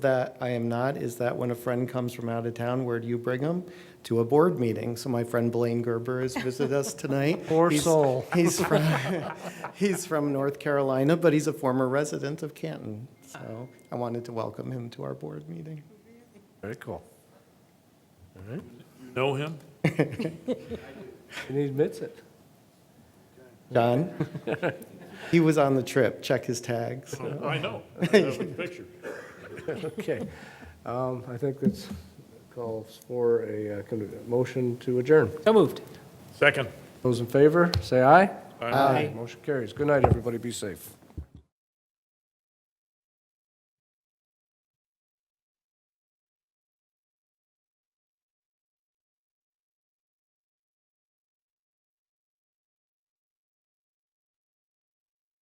that I am not is that when a friend comes from out of town, where do you bring them? To a board meeting. So my friend Blaine Gerber has visited us tonight. Poor He's- soul. He's from, he's from North Carolina, but he's a former resident of Canton. So I wanted to welcome him to our board meeting. Very cool. All right, Know him? and he admits it. John? He was on the trip. Check his tags. I know. I have a picture. Okay. Um, I think that's calls for a uh, con- a motion to adjourn. So moved. Second. Those in favor, say aye. Aye. Motion carries. Good night, everybody. Be safe.